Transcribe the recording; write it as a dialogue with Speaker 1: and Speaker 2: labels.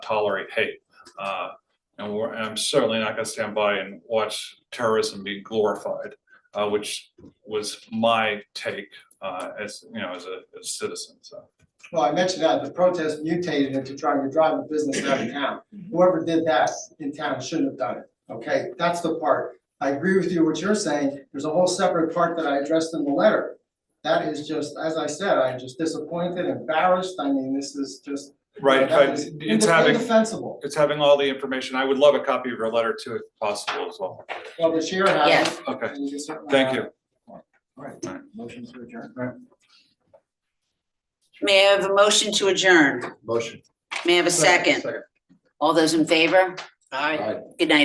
Speaker 1: tolerate hate. Uh, And we're, and I'm certainly not gonna stand by and watch terrorism be glorified, uh, which was my take, uh, as, you know, as a, as a citizen, so.
Speaker 2: Well, I mentioned that, the protest mutated into trying to drive a business out of town. Whoever did that in town shouldn't have done it, okay? That's the part. I agree with you, what you're saying, there's a whole separate part that I addressed in the letter. That is just, as I said, I'm just disappointed, embarrassed, I mean, this is just.
Speaker 1: Right,
Speaker 2: that
Speaker 1: but
Speaker 2: is
Speaker 1: it's having,
Speaker 2: Indefensible,
Speaker 1: it's having all the information. I would love a copy of your letter too, if possible as well.
Speaker 2: well, the chair has it.
Speaker 1: Okay,
Speaker 2: and you can certainly
Speaker 1: thank
Speaker 2: have
Speaker 1: you.
Speaker 2: it.
Speaker 3: Motion to adjourn.
Speaker 4: May I have a motion to adjourn?
Speaker 3: Motion.
Speaker 4: May I have a second? All those in favor? All right,
Speaker 3: Aye.
Speaker 4: good night.